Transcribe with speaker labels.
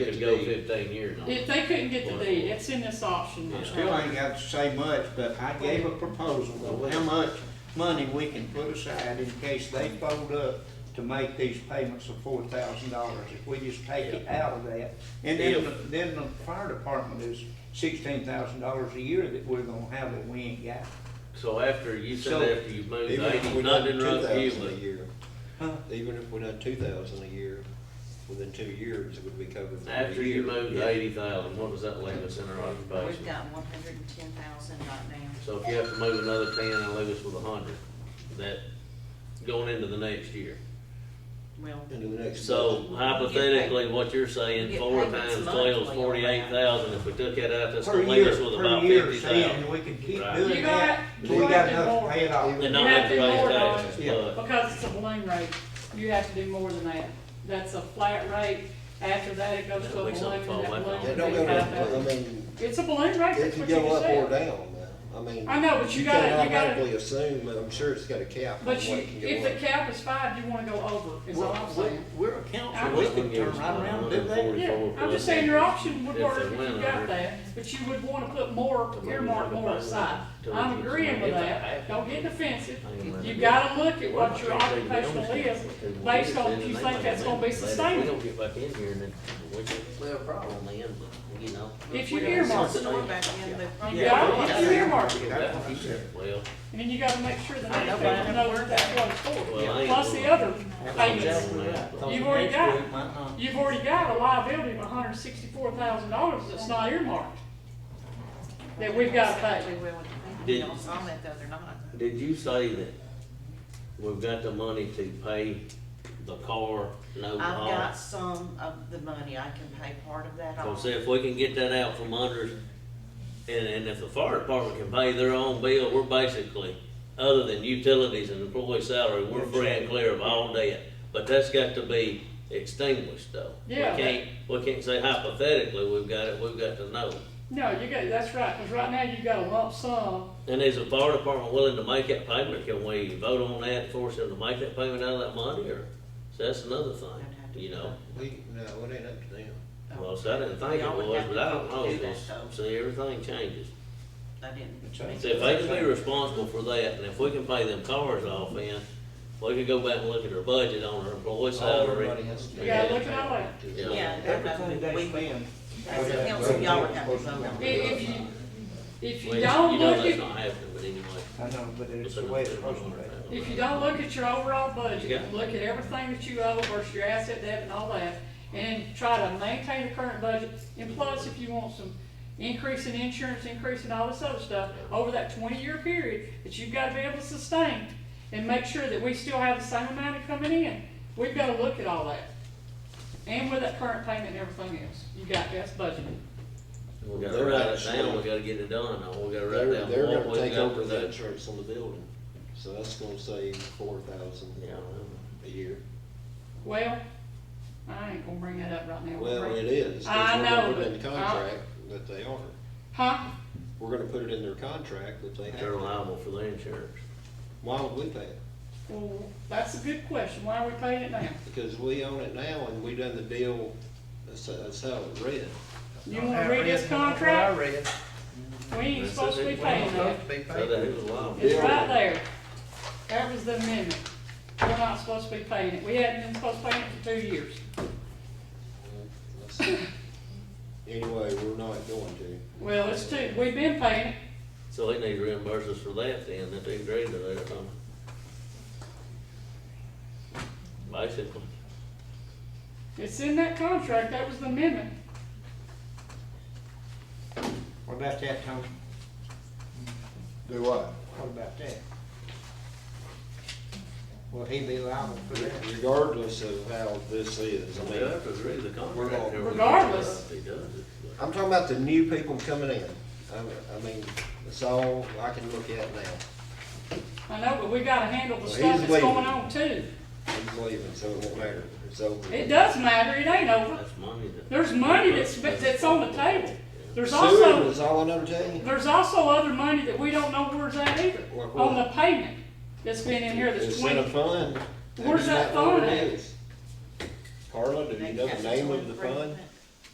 Speaker 1: Could go fifteen years on
Speaker 2: If
Speaker 1: it.
Speaker 2: they couldn't get the deed, it's in this option.
Speaker 1: Yeah.
Speaker 3: Still ain't got to say much, but I gave a proposal of how much money we can put aside in case they fold up to make these payments of four thousand dollars, if we just take it out of that. And then, the- then the fire department is sixteen thousand dollars a year that we're gonna have that we ain't got.
Speaker 1: So after, you said
Speaker 3: So,
Speaker 1: after you've moved
Speaker 4: Even if
Speaker 1: eighty,
Speaker 4: we done
Speaker 1: nothing
Speaker 4: two
Speaker 1: runs
Speaker 4: thousand a
Speaker 1: you,
Speaker 4: year,
Speaker 3: Huh?
Speaker 4: even if we done two thousand a year, within two years, it would be covered
Speaker 1: but
Speaker 4: for a year.
Speaker 1: after you moved
Speaker 4: Yeah.
Speaker 1: eighty thousand, what does that leave us in our
Speaker 5: We've
Speaker 1: occupation?
Speaker 5: got one hundred and ten thousand right now.
Speaker 1: So if you have to move another ten and leave us with a hundred, that, going into the next year.
Speaker 5: Well,
Speaker 4: Into the next.
Speaker 1: So hypothetically, what you're saying,
Speaker 5: Get
Speaker 1: four
Speaker 5: payments
Speaker 1: times twelve is
Speaker 5: monthly on
Speaker 1: forty-eight
Speaker 5: that.
Speaker 1: thousand, if we took that out, that's
Speaker 3: Per
Speaker 1: gonna leave
Speaker 3: year,
Speaker 1: us with
Speaker 3: per
Speaker 1: about
Speaker 3: year,
Speaker 1: fifty
Speaker 3: see,
Speaker 1: thousand.
Speaker 3: and we can keep
Speaker 1: Right.
Speaker 3: doing
Speaker 2: You got-
Speaker 3: that,
Speaker 2: you
Speaker 3: till we
Speaker 2: got
Speaker 3: got
Speaker 2: to
Speaker 3: enough
Speaker 2: more.
Speaker 3: to pay it off.
Speaker 1: And not have to
Speaker 2: You have to
Speaker 1: raise
Speaker 2: lower it.
Speaker 1: taxes,
Speaker 3: Yeah.
Speaker 1: but
Speaker 2: Uh, Because it's a balloon rate, you have to do more than that. That's a flat rate. After that, it goes to a
Speaker 1: That'll be
Speaker 2: balloon,
Speaker 1: something
Speaker 2: and
Speaker 1: fall
Speaker 2: that
Speaker 1: back
Speaker 2: balloon
Speaker 1: on.
Speaker 4: It
Speaker 2: would
Speaker 4: don't
Speaker 2: be
Speaker 4: go,
Speaker 2: five
Speaker 4: down, I
Speaker 2: thousand.
Speaker 4: mean,
Speaker 2: It's a balloon rate,
Speaker 4: it
Speaker 2: that's
Speaker 4: can
Speaker 2: what you
Speaker 4: go up or
Speaker 2: can say.
Speaker 4: down, now. I mean.
Speaker 2: I know, but you
Speaker 4: can't
Speaker 2: gotta- you gotta-
Speaker 4: Automatically assume, I'm sure it's got a cap on what
Speaker 2: But you,
Speaker 4: it can go
Speaker 2: if
Speaker 4: up.
Speaker 2: the cap is five, you wanna go over, is all I'm
Speaker 3: We're-
Speaker 2: saying.
Speaker 3: We're a council, we can turn right around and do that.
Speaker 2: Yeah, I'm just saying your option would work if you got that, but you would wanna put more, earmark more aside. I'm agreeing with that, don't get defensive. You gotta look at what your occupational is, based on if you think that's gonna be
Speaker 6: We
Speaker 2: sustainable.
Speaker 6: don't get back in here and then we could, we have a problem then, but, you know.
Speaker 2: If you earmark it,
Speaker 5: store back in the.
Speaker 2: You got it, if you earmark it,
Speaker 3: That's what I said.
Speaker 1: Well,
Speaker 2: and then you gotta make sure the
Speaker 5: I know,
Speaker 2: next
Speaker 5: but I
Speaker 2: person
Speaker 5: never
Speaker 2: knows
Speaker 5: worked
Speaker 2: that's
Speaker 5: that.
Speaker 2: what it's for.
Speaker 1: Well, I ain't
Speaker 2: Plus the
Speaker 1: gonna-
Speaker 2: other payments,
Speaker 3: Exactly right.
Speaker 2: You've already got it.
Speaker 3: Might not.
Speaker 2: you've already got a liability of hundred and sixty-four thousand dollars that's not earmarked, that we've gotta pay.
Speaker 1: Did-
Speaker 5: Y'all saw that the other night.
Speaker 1: did you say that we've got the money to pay the car and
Speaker 5: I've
Speaker 1: overhaul?
Speaker 5: got some of the money, I can pay part of that
Speaker 1: So
Speaker 5: off.
Speaker 1: see if we can get that out from under, us, and, and if the fire department can pay their own bill, we're basically, other than utilities and employee salary, we're free and clear of all debt. But that's got to be extinguished though.
Speaker 2: Yeah.
Speaker 1: We can't, we can't say hypothetically, we've got it, we've got to know.
Speaker 2: No, you got, that's right, cause right now you got a lump sum,
Speaker 1: And is the fire department willing to make that payment? Can we vote on that, force them to make that payment out of that money, or, so that's another thing, you know?
Speaker 4: We, no, it ain't up to them.
Speaker 1: Well, so I didn't think it
Speaker 5: Y'all would
Speaker 1: was,
Speaker 5: have to
Speaker 1: but I don't know,
Speaker 5: do that,
Speaker 1: 'cause,
Speaker 5: though.
Speaker 1: see, everything changes.
Speaker 5: I didn't.
Speaker 3: It's a-
Speaker 1: See, if they can be responsible for that, and if we can pay them cars off in, we can go back and look at our budget on our employee salary.
Speaker 4: Everybody has to.
Speaker 2: you gotta look at all that.
Speaker 1: Yeah.
Speaker 3: Everything they spend.
Speaker 5: As a council, y'all would have to vote
Speaker 2: I-
Speaker 5: on it.
Speaker 2: If you, if
Speaker 1: Well,
Speaker 2: you don't
Speaker 1: you know
Speaker 2: look
Speaker 1: that's
Speaker 2: at,
Speaker 1: not happening, but anyway.
Speaker 3: I know, but it's the way it's supposed to be.
Speaker 2: if you don't look at your overall budget,
Speaker 1: Yeah.
Speaker 2: and look at everything that you owe versus your asset debt and all that, and try to maintain the current budget, and plus if you want some increase in insurance, increase in all this other stuff, over that twenty-year period, that you've gotta be able to sustain, and make sure that we still have the same amount of coming in, we've gotta look at all that. And with that current payment and everything else, you got, that's budgeted.
Speaker 1: We gotta
Speaker 4: They're
Speaker 1: write it
Speaker 4: actually-
Speaker 1: down, we gotta get it done, though. we gotta write
Speaker 4: They're,
Speaker 1: down
Speaker 4: they're
Speaker 1: what
Speaker 4: gonna
Speaker 1: we
Speaker 4: take
Speaker 1: got
Speaker 4: over
Speaker 1: for
Speaker 4: the
Speaker 1: that.
Speaker 4: insurance on the building, so that's gonna save four thousand
Speaker 1: Yeah.
Speaker 4: a year.
Speaker 2: Well, I ain't gonna bring that up right now.
Speaker 4: Well, it is, 'cause
Speaker 2: I
Speaker 4: we're gonna
Speaker 2: know,
Speaker 4: put it in the
Speaker 2: but I-
Speaker 4: contract that they are.
Speaker 2: Huh?
Speaker 4: We're gonna put it in their contract that they have.
Speaker 1: They're
Speaker 4: to.
Speaker 1: liable for their insurance.
Speaker 4: Why would we pay it?
Speaker 2: Well, that's a good question. Why are we paying it now?
Speaker 4: Because we own it now and we done the deal, that's, that's how it read.
Speaker 2: You wanna read this contract? We ain't supposed to be paying that.
Speaker 1: So that who's liable?
Speaker 2: It's right there. That was the amendment. We're not supposed to be paying it. We hadn't been supposed to pay it for two years.
Speaker 4: That's- Anyway, we're not going to.
Speaker 2: Well, it's two, we've been paying it.
Speaker 1: So they need to reimburse us for that then, that they agreed to that or something. Basically.
Speaker 2: It's in that contract. That was the amendment.
Speaker 3: What about that, Tony?
Speaker 7: Do what?
Speaker 3: What about that? Will he be liable for that?
Speaker 4: Regardless of how this is, I
Speaker 1: So
Speaker 4: mean.
Speaker 1: we have to agree to the
Speaker 4: We're all-
Speaker 1: contract. everything.
Speaker 2: Regardless.
Speaker 1: He does it.
Speaker 4: I'm talking about the new people coming in. I, I mean, that's all I can look at now.
Speaker 2: I know, but we gotta handle the
Speaker 4: Well,
Speaker 2: stuff
Speaker 4: he's
Speaker 2: that's going
Speaker 4: leaving.
Speaker 2: on too.
Speaker 4: He's leaving, so it won't matter. It's over.
Speaker 2: It does matter. It ain't over.
Speaker 1: That's money that.
Speaker 2: There's money that's, that's on the table. There's also.
Speaker 4: Sewer is all I know to tell you.
Speaker 2: There's also other money that we don't know where's at either,
Speaker 4: Like what?
Speaker 2: on the payment that's been in here that's
Speaker 4: It's in a
Speaker 2: twenty.
Speaker 4: fund.
Speaker 2: Where's
Speaker 4: That's
Speaker 2: that
Speaker 4: not what
Speaker 2: fund
Speaker 4: it
Speaker 2: at?
Speaker 4: is. Carla, do you know the name of the fund?